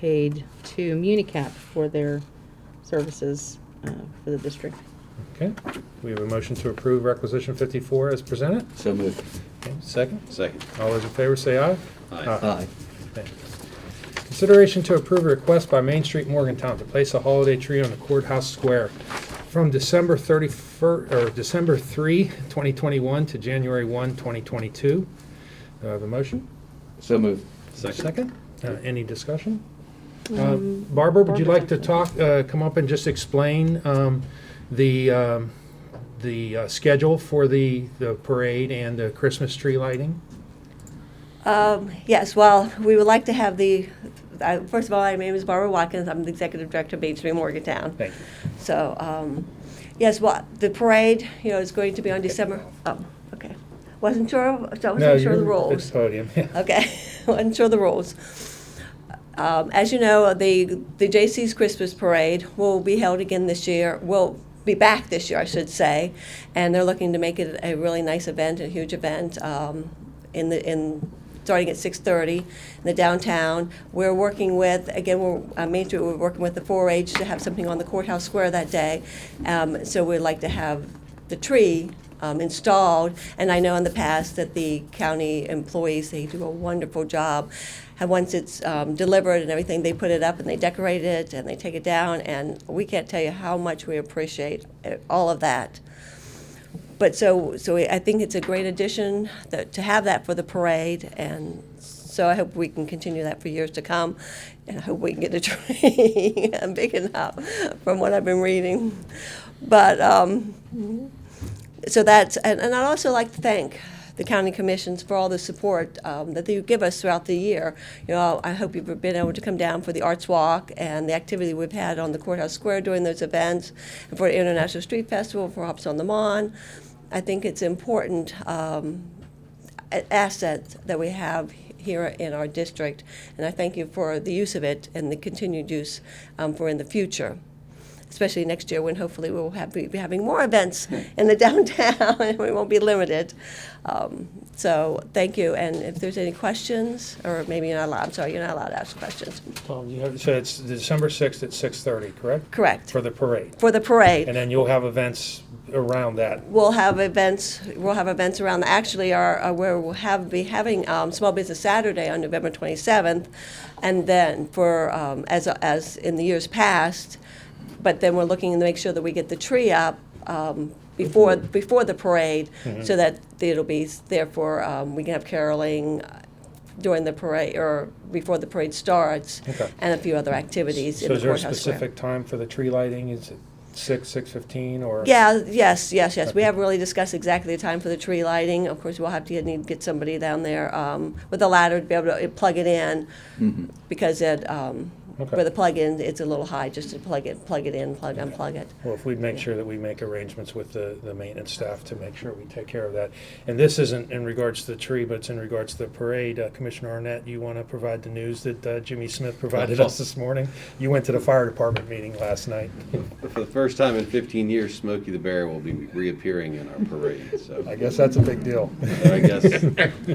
paid to Municap for their services uh, for the district. Okay, we have a motion to approve requisition 54 as presented. So moved. Okay, Second, Second. all those in favor say aye. Aye. Aye. Okay. Consideration to approve a request by Main Street Morgantown to place a holiday tree on the courthouse square from December 31st, or December 3, 2021 to January 1, 2022. Do I have a Uh, motion? So moved. Second, Uh, any discussion? Uh, Um, Mm-hmm. Barbara, would you Barbara like to has one. talk, uh, come up and just explain um, the, um, the uh, schedule for the, the parade and the Christmas tree lighting? Um, Yes, well, we would like to have the, I- first of all, my name is Barbara Watkins, I'm the Executive Director of Main Street Morgantown. Thank So, um, yes, well, the parade, you know, is going to be on December, oh, okay. Wasn't sure, so No, I wasn't sure of the you're at rules. the podium, yeah. Okay, wasn't sure of the rules. Um, As you know, the, the J.C.'s Christmas Parade will be held again this year, will be back this year, I should say, and they're looking to make it a really nice event, a huge event, um, in the, in, starting at 6:30 in the downtown. We're working with, again, we're, uh, Main Street, we're working with the 4-H to have something on the courthouse square that day. Um, So we'd like to have the tree um, installed, and I know in the past that the county employees, they do a wonderful job. And once it's um, delivered and everything, they put it up and they decorate it and they take it down, and we can't tell you how much we appreciate uh, all of that. But so, so I think it's a great addition that, to have that for the parade, and so I hope we can continue that for years to come, and I hope we can get a tree big enough from what I've been reading. But, um, so that's, and, and I'd also like to thank the county commissions for all the support um, that they give us throughout the year. You know, I hope you've been able to come down for the Arts Walk and the activity we've had on the Courthouse Square during those events, and for the International Street Festival, for Hops on the Mon. I think it's important um, a- asset that we have here in our district, and I thank you for the use of it and the continued use um, for in the future especially next year when hopefully we'll have, be having more events in the downtown and we won't be limited. Um, so thank you. And if there's any questions, or maybe you're not allowed, I'm sorry, you're not allowed to ask questions. Well, you have, so it's December 6th at 6:30, correct? Correct. For the parade. For the parade. And then you'll have events around that. we'll have events, we'll have events around, actually, our, uh, where we'll have, be having um, Small Business Saturday on November 27th, and then for, um, as, as in the years past, but then we're looking to make sure that we get the tree up um, before, before the parade, Mm-hmm. so that it'll be, s- therefore, um, we can have caroling uh, during the parade, or before the parade starts, Okay. and a few other activities So in the is there a courthouse square. specific time for the tree lighting? Is it 6, 6:15, or? Yeah, yes, yes, yes. We Okay. haven't really discussed exactly the time for the tree lighting. Of course, we'll have to need to get somebody down there um, with a ladder to be able to plug it in Mm-hmm. because it, um, Okay. with a plug-in, it's a little high just to plug it, plug it in, plug, unplug it. Well, if we'd make sure that we make arrangements with the, the maintenance staff to make sure we take care of that. And this isn't in regards to the tree, but it's in regards to the parade. Uh, Commissioner Arnett, you want to provide the news that uh, Jimmy Smith provided us this morning? You went to the fire department meeting last night. For the first time in 15 years, Smokey the Bear will be reappearing in our parade, so I guess that's a big deal. I guess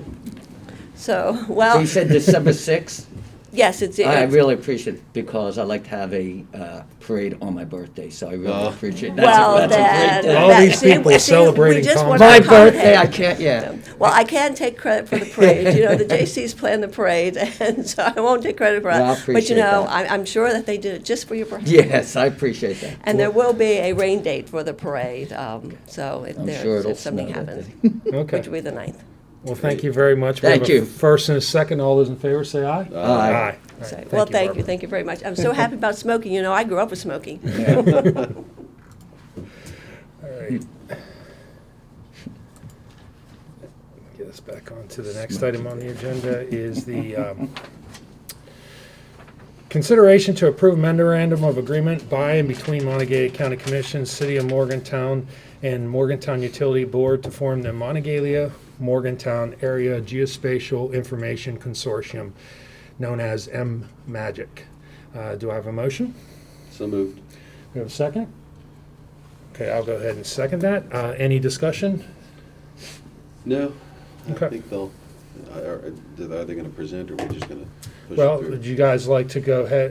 So, So well, you said December 6th? yes, it's, I it's- really appreciate it because I like to have a uh, parade on my birthday, so I really Oh. appreciate it. That's a- well, that's a great that. day. All that- these see, people we- see, celebrating we just Tom- want My My to comment. birthday, I can't, yeah. Well, I can take credit for the parade. You know, the J.C.'s planned the parade, and so I won't take credit for Well, I that. But you appreciate know, that. I- I'm sure that they did it just for your birthday. Yes, I appreciate that. And there will be a rain date for the parade, um, so if I'm there, sure it'll if something snow that happens, Okay. which will be the ninth. Well, thank you very much. We have Thank a you. First and a second, all those in favor say aye. Aye. Aye. Aye. All So, right, well, thank you, Barbara. thank you very much. I'm so happy about smoking, you know, I grew up with smoking. All right. Get us back on to the next item on the agenda is the um, consideration to approve memorandum of agreement by and between Montague County Commission, City of Morgantown, and Morgantown Utility Board to form the Monongalia Morgantown Area Geospatial Information Consortium, known as M-MAGIC. Uh, Do I have a motion? so moved. We have a second? Okay, I'll go ahead and second that. Uh, Any discussion? No, I Okay. think they'll, are are they going to present or we're just going to? push it Well, through. would you guys like to go ahead,